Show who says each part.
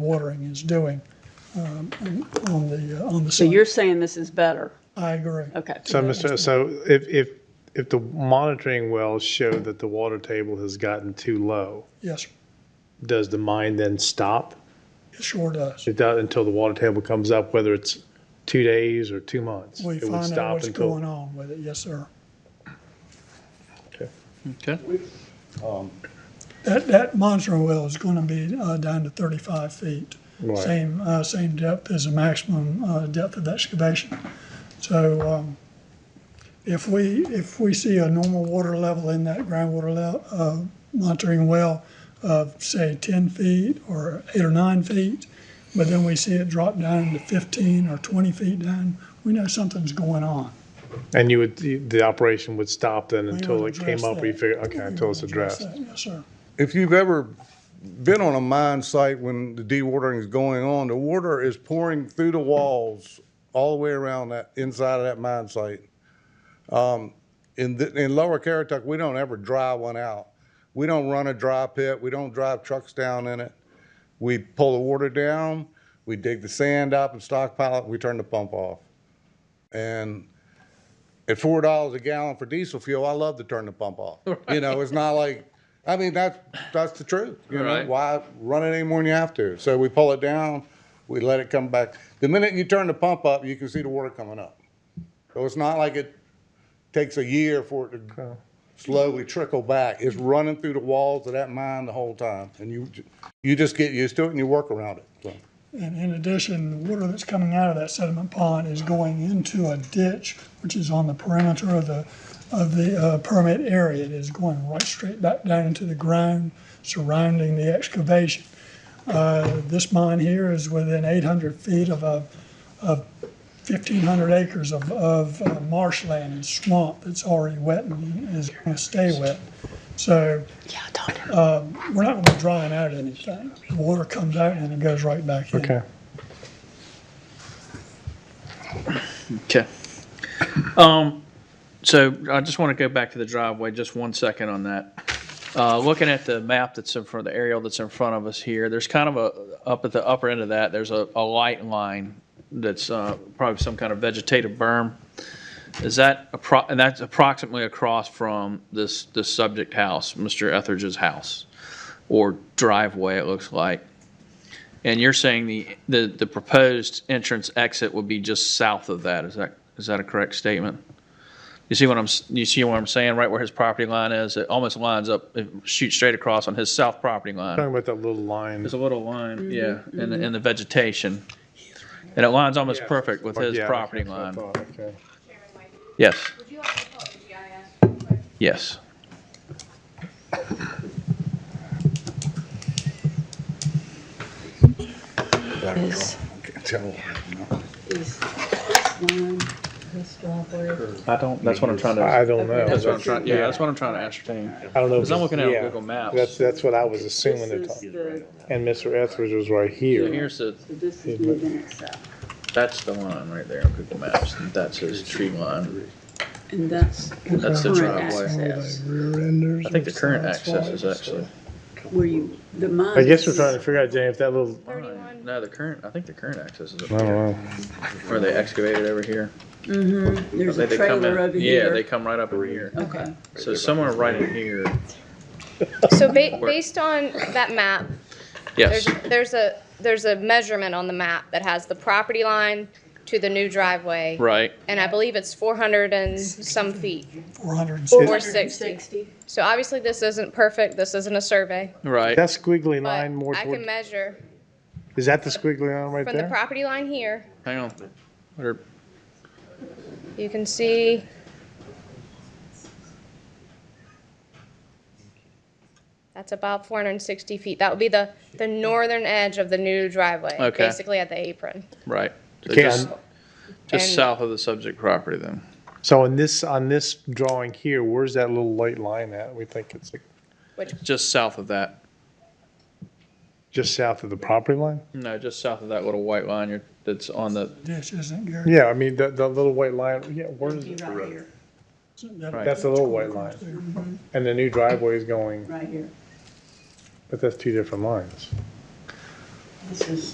Speaker 1: watering is doing um, on the, uh, on the
Speaker 2: So
Speaker 1: site.
Speaker 2: you're saying this is better?
Speaker 1: I agree.
Speaker 2: Okay.
Speaker 3: So, Mr., so if, if, if the monitoring wells show that the water table has gotten too low,
Speaker 1: Yes,
Speaker 3: does the mine then stop?
Speaker 1: it sure does.
Speaker 3: It does until the water table comes up, whether it's two days or two months?
Speaker 1: We
Speaker 3: It would
Speaker 1: find out
Speaker 3: stop
Speaker 1: what's
Speaker 3: until-
Speaker 1: going on with it, yes, sir.
Speaker 4: Okay.
Speaker 1: That, that monitoring well is going to be uh, down to 35 feet.
Speaker 3: Right.
Speaker 1: Same, uh, same depth as the maximum uh, depth of excavation. So um, if we, if we see a normal water level in that groundwater le- uh, monitoring well of, say, 10 feet or eight or nine feet, but then we see it drop down to 15 or 20 feet down, we know something's going on.
Speaker 3: And you would, the the operation would stop then
Speaker 1: We
Speaker 3: until
Speaker 1: would
Speaker 3: it came
Speaker 1: address
Speaker 3: up, or you
Speaker 1: that.
Speaker 3: figure, okay, until it's
Speaker 1: We would address
Speaker 3: addressed.
Speaker 1: that, Yes, sir.
Speaker 5: if you've ever been on a mine site when the dewatering is going on, the water is pouring through the walls all the way around that, inside of that mine site. Um, In, the- in Lower Carrituck, we don't ever dry one out. We don't run a dry pit, we don't drive trucks down in it. We pull the water down, we dig the sand up and stockpile it, we turn the pump off. And at four dollars a gallon for diesel fuel, I love to turn the pump off. You know, it's not like, I mean, that's, that's the truth, you know?
Speaker 4: Right.
Speaker 5: Why run it any more than you have to? So we pull it down, we let it come back. The minute you turn the pump up, you can see the water coming up. So it's not like it takes a year for it to slowly trickle back. It's running through the walls of that mine the whole time. And you, ju- you just get used to it and you work around it, so.
Speaker 1: And in addition, the water that's coming out of that sediment pond is going into a ditch, which is on the perimeter of the, of the uh, permit area. It is going right straight back down into the ground surrounding the excavation. Uh, This mine here is within 800 feet of a, of 1,500 acres of, of uh, marshland and swamp that's already wet and is going to stay wet. So
Speaker 2: Yeah, I told him.
Speaker 1: uh, we're not going to be drying out anything. The water comes out and it goes right back in.
Speaker 3: Okay.
Speaker 4: Okay. Um, so I just want to go back to the driveway, just one second on that. Uh, looking at the map that's in front, the aerial that's in front of us here, there's kind of a, up at the upper end of that, there's a, a light line that's, uh, probably some kind of vegetative berm. Is that appro, and that's approximately across from this, this subject house, Mr. Etheridge's house, or driveway, it looks like. And you're saying the, the, the proposed entrance exit would be just south of that, is that, is that a correct statement? You see what I'm, s- you see what I'm saying, right where his property line is, it almost lines up, it shoots straight across on his south property line.
Speaker 3: Talking about that little line,
Speaker 4: There's a little line,
Speaker 3: Mm-hmm.
Speaker 4: yeah, in the, in the vegetation. And it lines almost perfect with
Speaker 3: Or-
Speaker 4: his
Speaker 3: yeah,
Speaker 4: property
Speaker 3: that's what I
Speaker 4: line.
Speaker 3: thought, okay.
Speaker 6: Chairman White,
Speaker 4: Yes,
Speaker 6: would you like to pull up the GIS real quick?
Speaker 4: yes.
Speaker 2: This is line, this driveway.
Speaker 4: I don't, that's what I'm trying
Speaker 3: I don't know.
Speaker 4: That's what I'm trying, yeah, that's what I'm trying to ascertain.
Speaker 3: I don't know.
Speaker 4: Because I'm
Speaker 3: if it's-
Speaker 4: looking at
Speaker 3: yeah.
Speaker 4: Google Maps.
Speaker 3: That's, that's what I was
Speaker 2: This
Speaker 3: assuming they're
Speaker 2: is
Speaker 3: talking.
Speaker 2: the,
Speaker 3: And Mr. Etheridge was right
Speaker 4: So
Speaker 3: here.
Speaker 4: Here's the,
Speaker 2: so this is moving itself.
Speaker 4: that's the line right there on Google Maps, that's his tree line.
Speaker 2: And that's
Speaker 4: That's
Speaker 2: the
Speaker 4: the
Speaker 2: current
Speaker 4: driveway.
Speaker 2: access,
Speaker 4: I think the current access is actually.
Speaker 2: where you, the mine.
Speaker 3: I guess we're trying to figure out, James, that little,
Speaker 4: Fine. No, the current, I think the current access is
Speaker 3: I
Speaker 4: up
Speaker 3: don't
Speaker 4: here,
Speaker 3: know.
Speaker 4: where they excavated over here.
Speaker 2: Mm-hmm, there's
Speaker 4: They-
Speaker 2: a
Speaker 4: they come
Speaker 2: trailer
Speaker 4: in-
Speaker 2: over
Speaker 4: Yeah, they
Speaker 2: here.
Speaker 4: come right up over here.
Speaker 2: Okay,
Speaker 4: So somewhere right in here,
Speaker 7: So ba- based on that map, there's,
Speaker 4: yes,
Speaker 7: there's a, there's a measurement on the map that has the property line to the new driveway.
Speaker 4: right,
Speaker 7: And I believe it's four hundred and some feet,
Speaker 1: 460.
Speaker 7: or sixty. So obviously this isn't perfect, this isn't a survey,
Speaker 4: right.
Speaker 3: That squiggly
Speaker 7: but
Speaker 3: line more
Speaker 7: I can
Speaker 3: toward,
Speaker 7: measure
Speaker 3: is that the squiggly line right
Speaker 7: from the
Speaker 3: there?
Speaker 7: property line here,
Speaker 4: Hang on. What are-
Speaker 7: you can see. That's about four hundred and sixty feet, that would be the, the northern edge of the new driveway,
Speaker 4: Okay.
Speaker 7: basically at the apron.
Speaker 4: Right. So
Speaker 3: Okay,
Speaker 4: just,
Speaker 3: on-
Speaker 4: just
Speaker 7: And-
Speaker 4: south of the subject property then.
Speaker 3: So on this, on this drawing here, where's that little light line at? We think it's like
Speaker 4: Just south of that.
Speaker 3: just south of the property line?
Speaker 4: No, just south of that little white line you're, that's on the,
Speaker 1: This isn't Gary.
Speaker 3: Yeah, I mean, that, that little white line, yeah, where is
Speaker 2: Be
Speaker 3: it?
Speaker 2: right here,
Speaker 1: That-
Speaker 3: That's the little white line. And the new driveway is going,
Speaker 2: right here.
Speaker 3: but that's two different lines.
Speaker 2: This is